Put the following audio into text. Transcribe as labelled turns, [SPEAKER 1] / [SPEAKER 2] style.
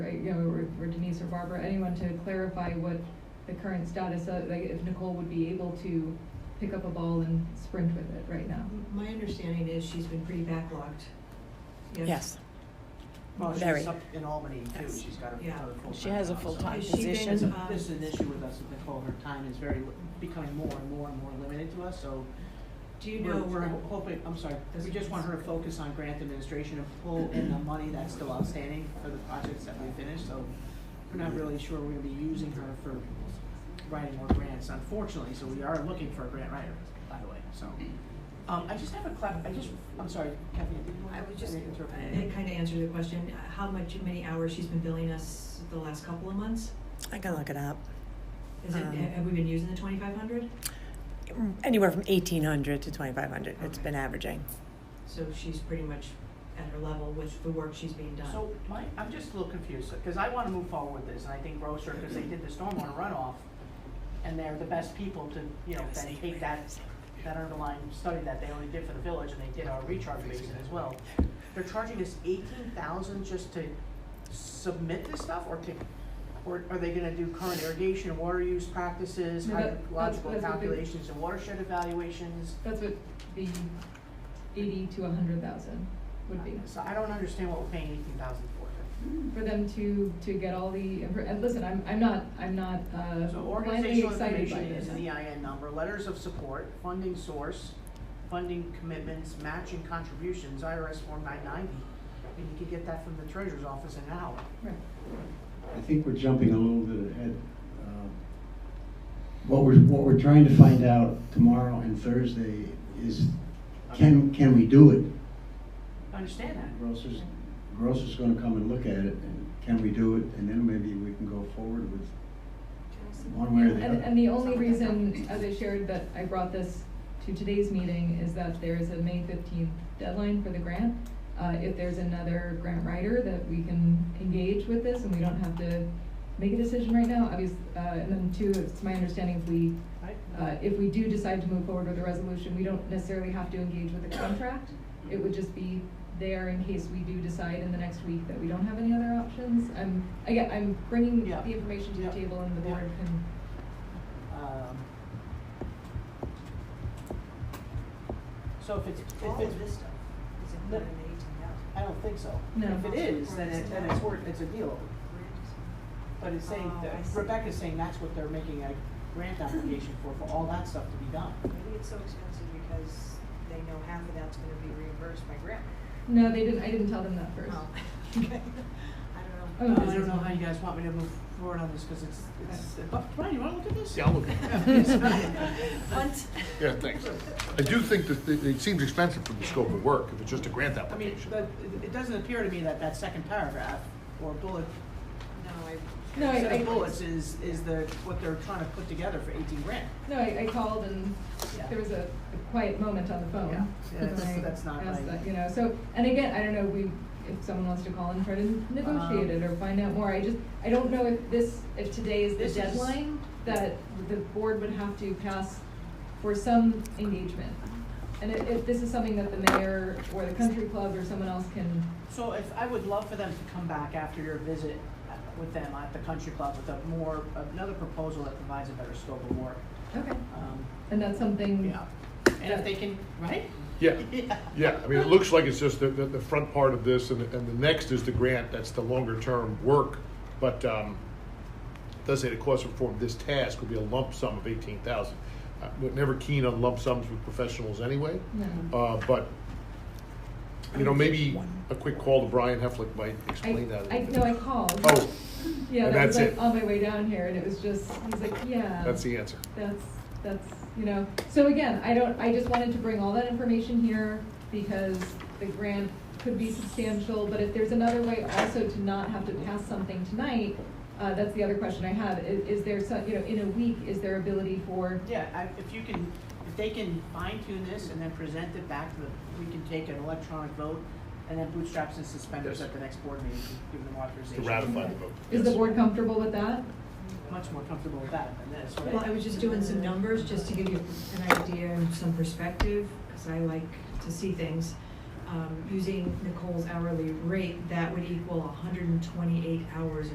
[SPEAKER 1] you know, or or Denise or Barbara, anyone to clarify what the current status, of- like if Nicole would be able to pick up a ball and sprint with it right now.
[SPEAKER 2] My understanding is she's been pretty backlogged.
[SPEAKER 3] Yes.
[SPEAKER 4] Well,
[SPEAKER 3] Very.
[SPEAKER 4] she's up in Albany too,
[SPEAKER 3] Yes.
[SPEAKER 4] she's got a-
[SPEAKER 2] Yeah.
[SPEAKER 4] another full-time job.
[SPEAKER 3] She has a
[SPEAKER 4] so-
[SPEAKER 3] full-time
[SPEAKER 2] Has she been,
[SPEAKER 3] position.
[SPEAKER 4] This is-
[SPEAKER 2] um,
[SPEAKER 4] This is an issue with us with Nicole, her time is very, li- becoming more and more and more limited to us, so
[SPEAKER 2] Do you
[SPEAKER 4] we're,
[SPEAKER 2] know
[SPEAKER 4] we're
[SPEAKER 3] uh,
[SPEAKER 2] where,
[SPEAKER 4] hoping, I'm sorry, we just want her to focus on grant administration and pull in the money that's still outstanding for the projects that we finished, so we're not really sure we're gonna be using her for writing more grants, unfortunately, so we are looking for a grant writer, by the way, so. Um, I just have a clap, I just, I'm sorry, Kathy, did you want?
[SPEAKER 2] I was just,
[SPEAKER 4] I interrupted you.
[SPEAKER 2] it kind of answered the question, uh, how much, many hours she's been billing us the last couple of months?
[SPEAKER 3] I can look it up.
[SPEAKER 2] Is it,
[SPEAKER 3] Um,
[SPEAKER 2] have we been using the twenty-five hundred?
[SPEAKER 3] Anywhere from eighteen hundred to twenty-five hundred, it's been averaging.
[SPEAKER 2] So she's pretty much at her level with the work she's being done.
[SPEAKER 4] So my, I'm just a little confused, because I want to move forward with this, and I think Grocer, because they did the stormwater runoff, and they're the best people to, you know, then take that, that underlying study that they only did for the village, and they did our recharge basin as well. They're charging us eighteen thousand just to submit this stuff, or to, or are they gonna do current irrigation, and water use practices,
[SPEAKER 1] No, that- that's-
[SPEAKER 4] hydrological
[SPEAKER 1] that's what they-
[SPEAKER 4] calculations, and watershed evaluations?
[SPEAKER 1] That's what the eighty to a hundred thousand would be.
[SPEAKER 4] So I don't understand what we're paying eighteen thousand for.
[SPEAKER 1] for them to, to get all the, and listen, I'm, I'm not, I'm not, uh,
[SPEAKER 4] So
[SPEAKER 1] blindly
[SPEAKER 4] organizational
[SPEAKER 1] excited by
[SPEAKER 4] information
[SPEAKER 1] this.
[SPEAKER 4] is an EIN number, letters of support, funding source, funding commitments, matching contributions, IRS Form nine ninety. And you can get that from the treasurer's office in an hour.
[SPEAKER 1] Right.
[SPEAKER 5] I think we're jumping a little bit ahead. Um, What we're, what we're trying to find out tomorrow and Thursday is, can, can we do it?
[SPEAKER 4] I understand that.
[SPEAKER 5] Grocer's, Grocer's gonna come and look at it, and can we do it? And then maybe we can go forward with one way or the
[SPEAKER 1] And, and
[SPEAKER 5] other.
[SPEAKER 1] the only reason, as I shared, that I brought this to today's meeting is that there is a May fifteenth deadline for the grant. Uh, if there's another grant writer that we can engage with this and we don't have to make a decision right now, obvious, uh, and then two, it's my understanding if we Uh, if we do decide to move forward with a resolution, we don't necessarily have to engage with the contract. It would just be there in case we do decide in the next week that we don't have any other options. I'm, again, I'm bringing
[SPEAKER 4] Yeah.
[SPEAKER 1] the information to the
[SPEAKER 4] Yeah.
[SPEAKER 1] table and the
[SPEAKER 4] Yeah.
[SPEAKER 1] board can,
[SPEAKER 4] Um, So if it's, if
[SPEAKER 2] All
[SPEAKER 4] it's,
[SPEAKER 2] of this stuff is included in the eighteen thousand.
[SPEAKER 4] I don't think so.
[SPEAKER 1] No.
[SPEAKER 4] If it is, then it, then it's worth, it's a deal. But it's saying,
[SPEAKER 2] Oh,
[SPEAKER 4] that-
[SPEAKER 2] I see.
[SPEAKER 4] Rebecca's saying that's what they're making a grant application for, for all that stuff to be done.
[SPEAKER 6] Maybe it's so expensive because they know half of that's gonna be reimbursed by grant. Oh,
[SPEAKER 1] no, they didn't, I didn't tell them that first.
[SPEAKER 4] Oh.
[SPEAKER 6] Okay. I
[SPEAKER 1] Oh,
[SPEAKER 6] don't know.
[SPEAKER 4] I don't know how you guys want me to move forward on this, because it's, it's, uh, Brian, you wanna look at this?
[SPEAKER 7] Yeah, I'll look.
[SPEAKER 3] Oh.
[SPEAKER 6] Hunt.
[SPEAKER 7] Yeah, thanks. I do think that it it seems expensive for the scope of work, if it's just a grant
[SPEAKER 4] I mean,
[SPEAKER 7] application.
[SPEAKER 4] the, it- it doesn't appear to me that that second paragraph, or bullet,
[SPEAKER 6] No, I,
[SPEAKER 1] No, I,
[SPEAKER 4] set
[SPEAKER 1] I,
[SPEAKER 4] of bullets is, is the, what they're trying to put together for eighteen grand.
[SPEAKER 1] no, I, I called and
[SPEAKER 4] Yeah.
[SPEAKER 1] there was a a quiet moment on the phone.
[SPEAKER 4] Yeah. Yeah, that's-
[SPEAKER 1] when I
[SPEAKER 4] that's not
[SPEAKER 1] asked
[SPEAKER 4] right.
[SPEAKER 1] that, You know, so, and again, I don't know, we, if someone wants to call and try to negotiate it
[SPEAKER 4] Um,
[SPEAKER 1] or find out more, I just, I don't know if this, if today is
[SPEAKER 4] This
[SPEAKER 1] the
[SPEAKER 4] is-
[SPEAKER 1] deadline that the board would have to pass for some engagement. And if, if this is something that the mayor or the country club or someone else can,
[SPEAKER 4] So if, I would love for them to come back after your visit uh, with them at the country club with a more, another proposal that provides a better scope of work.
[SPEAKER 1] okay,
[SPEAKER 4] Um,
[SPEAKER 1] and that's something.
[SPEAKER 4] yeah, and if they can, right?
[SPEAKER 7] Yeah,
[SPEAKER 4] Yeah.
[SPEAKER 7] yeah, I mean, it looks like it's just the, the, the front part of this, and, the- and the next is the grant, that's the longer-term work. But, um, it does say the cost of performing this task would be a lump sum of eighteen thousand. Uh, We're never keen on lump sums with professionals anyway.
[SPEAKER 1] No.
[SPEAKER 7] Uh, but, you know, maybe a quick call to Brian Heflick might explain that a
[SPEAKER 1] I, I,
[SPEAKER 7] little bit.
[SPEAKER 1] no, I called.
[SPEAKER 7] Oh,
[SPEAKER 1] Yeah,
[SPEAKER 7] and
[SPEAKER 1] that was
[SPEAKER 7] that's
[SPEAKER 1] like
[SPEAKER 7] it.
[SPEAKER 1] on my way down here and it was just, I was like, yeah.
[SPEAKER 7] that's the answer.
[SPEAKER 1] That's, that's, you know, so again, I don't, I just wanted to bring all that information here because the grant could be substantial, but if there's another way also to not have to pass something tonight, uh, that's the other question I have, I- is there some, you know, in a week, is there ability for,
[SPEAKER 4] Yeah, I, if you can, if they can fine tune this and then present it back to the, we can take an electronic vote and then bootstraps and suspenders
[SPEAKER 7] Yes.
[SPEAKER 4] at the next board meeting, give them
[SPEAKER 7] To
[SPEAKER 4] authorization.
[SPEAKER 7] ratify the vote.
[SPEAKER 1] is the board comfortable with that?
[SPEAKER 4] Much more comfortable with that than this, right?
[SPEAKER 2] Well, I was just doing some numbers, just to give you an idea and some perspective, because I like to see things. Um, using Nicole's hourly rate, that would equal hundred and twenty-eight hours